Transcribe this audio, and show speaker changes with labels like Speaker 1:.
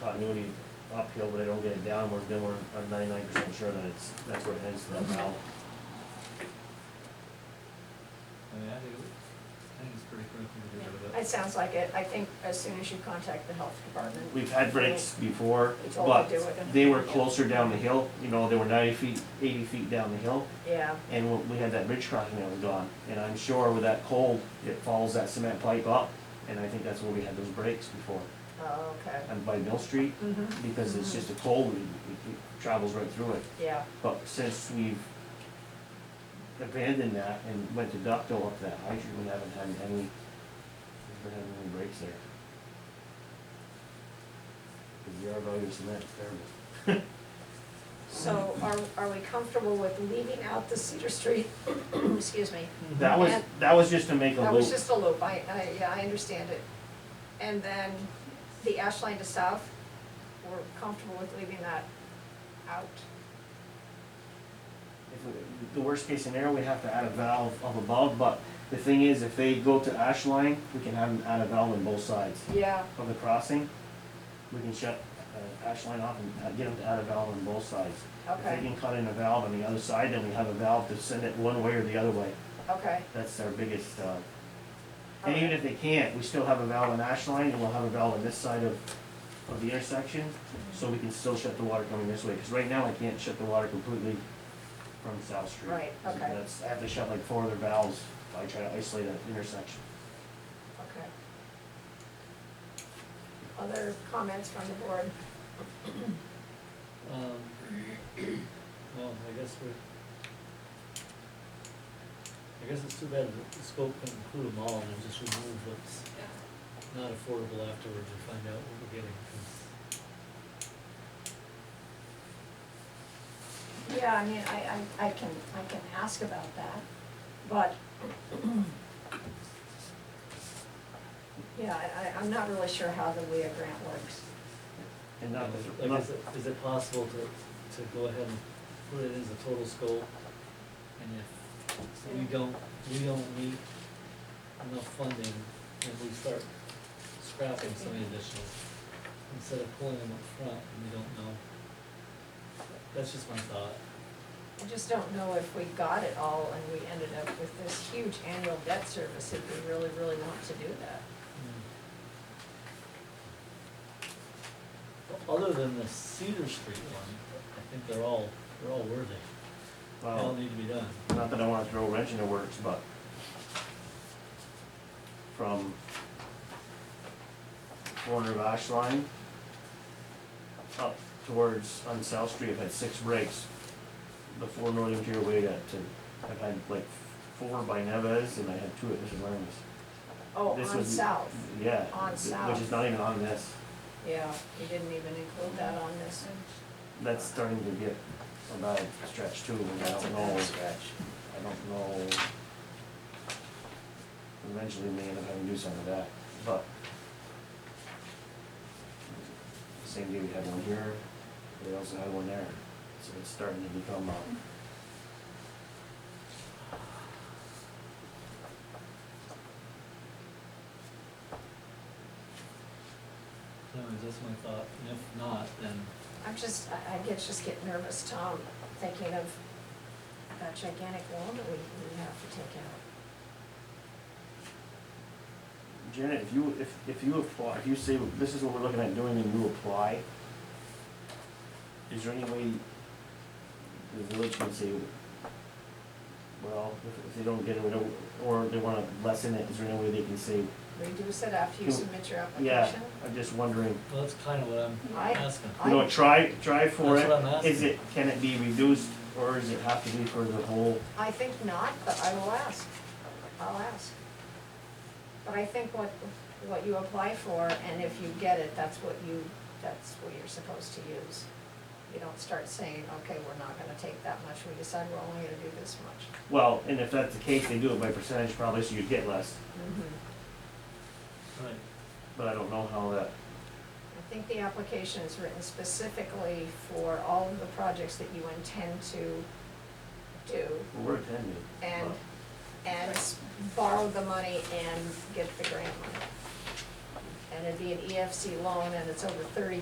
Speaker 1: continuity uphill, but I don't get it downward, then we're, I'm ninety-nine percent sure that it's, that's where it heads to that valve.
Speaker 2: I mean, I think, it- I think it's pretty critical to get rid of
Speaker 3: It
Speaker 2: that.
Speaker 3: sounds like it, I think as soon as you contact the health department.
Speaker 1: We've had breaks before,
Speaker 3: It's all
Speaker 1: but
Speaker 3: to do it.
Speaker 1: they were closer down the hill, you know, they were ninety feet, eighty feet down the hill.
Speaker 3: Yeah,
Speaker 1: And we- we had that bridge crossing that was gone, and I'm sure with that cold, it follows that cement pipe up, and I think that's where we had those breaks before.
Speaker 3: oh, okay.
Speaker 1: And by Mill Street,
Speaker 3: Mm-hmm,
Speaker 1: because it's just a cold, it, it travels right through it.
Speaker 3: yeah,
Speaker 1: But since we've abandoned that and went to ductile up that hydrant, we haven't had any, we haven't had any breaks there. Cause the R value of cement is terrible.
Speaker 3: so are, are we comfortable with leaving out the Cedar Street, excuse me?
Speaker 1: That was,
Speaker 3: And-
Speaker 1: that was just to make a
Speaker 3: That was
Speaker 1: loop,
Speaker 3: just a loop, I, I, yeah, I understand it. And then the ash line to south, we're comfortable with leaving that out?
Speaker 1: If we- the worst case scenario, we have to add a valve up above, but the thing is, if they go to ash line, we can have them add a valve on both sides
Speaker 3: Yeah,
Speaker 1: of the crossing. We can shut, uh, ash line off and uh, get them to add a valve on both sides. If they
Speaker 3: okay,
Speaker 1: can cut in a valve on the other side, then we have a valve to send it one way or the other way.
Speaker 3: okay.
Speaker 1: That's our biggest, uh, and even
Speaker 3: alright.
Speaker 1: if they can't, we still have a valve on Ash Line, and we'll have a valve on this side of, of the intersection, so we can still shut the water coming this way, because right now I can't shut the water completely from South Street.
Speaker 3: Right,
Speaker 1: So
Speaker 3: okay.
Speaker 1: That's, I have to shut like four other valves if I try to isolate that intersection.
Speaker 3: Okay. Other comments from the board?
Speaker 2: Um, well, I guess we're, I guess it's too bad that the scope can include them all and just remove what's not affordable afterwards and find out what we're getting, 'cause
Speaker 3: Yeah, I mean, I, I, I can, I can ask about that, but. Yeah, I, I, I'm not really sure how the WIA grant works.
Speaker 1: And not,
Speaker 2: Like,
Speaker 1: not,
Speaker 2: is it, is it possible to, to go ahead and put it as a total scope? And if we don't, we don't meet enough funding, then we start scrapping some of the additionals instead of pulling them up front and we don't know. That's just my thought.
Speaker 3: I just don't know if we got it all and we ended up with this huge annual debt service if we really, really want to do that.
Speaker 2: But Other than the Cedar Street one, I think they're all, they're all worthy. They all
Speaker 1: well,
Speaker 2: need to be done.
Speaker 1: not that I wanna throw a wrench in the works, but from corner of Ash Line up towards, on South Street, I've had six breaks. The four northern interior way at, to, I've had like four by Neves and I had two at Mrs. Lerner's.
Speaker 3: Oh,
Speaker 1: This
Speaker 3: on
Speaker 1: would-
Speaker 3: south,
Speaker 1: Yeah.
Speaker 3: On
Speaker 1: th-
Speaker 3: South.
Speaker 1: Which is not even on this.
Speaker 3: yeah, we didn't even include that on this.
Speaker 1: That's starting to get a bad stretch too, and I
Speaker 3: That's a
Speaker 1: don't
Speaker 3: bad
Speaker 1: know,
Speaker 3: stretch.
Speaker 1: I don't know. Eventually may end up having to do some of that, but. Same day we had one here, we also had one there, so it's starting to become, uh,
Speaker 2: Anyways, that's my thought, and if not, then
Speaker 3: I'm just, I, I get, just get nervous, Tom, thinking of that gigantic loan that we, we have to take out.
Speaker 1: Janet, if you, if, if you apply, if you say, this is what we're looking at doing and you apply, is there any way the village can say, well, if, if they don't get it, we don't- or they wanna lessen it, is there any way they can say,
Speaker 3: Reduce it after you
Speaker 1: Do-
Speaker 3: submit your
Speaker 1: yeah,
Speaker 3: application?
Speaker 1: I'm just wondering,
Speaker 2: Well, that's kind of what I'm
Speaker 3: I-
Speaker 2: asking.
Speaker 3: I-
Speaker 1: you know, try, try for
Speaker 2: That's
Speaker 1: it.
Speaker 2: what I'm
Speaker 1: Is it, can it be reduced, or does it have to be for the whole,
Speaker 3: I think not, but I will ask, I'll ask. But I think what, what you apply for, and if you get it, that's what you, that's what you're supposed to use. You don't start saying, okay, we're not gonna take that much, we decide we're only gonna do this much.
Speaker 1: well, and if that's the case, they do it by percentage probably, so you get less,
Speaker 2: Right,
Speaker 1: but I don't know how that,
Speaker 3: I think the application is written specifically for all of the projects that you intend to do
Speaker 1: we're attending.
Speaker 3: and,
Speaker 1: but-
Speaker 3: and s- borrow the money and get the grant money. And it'd be an EFC E loan and it's over thirty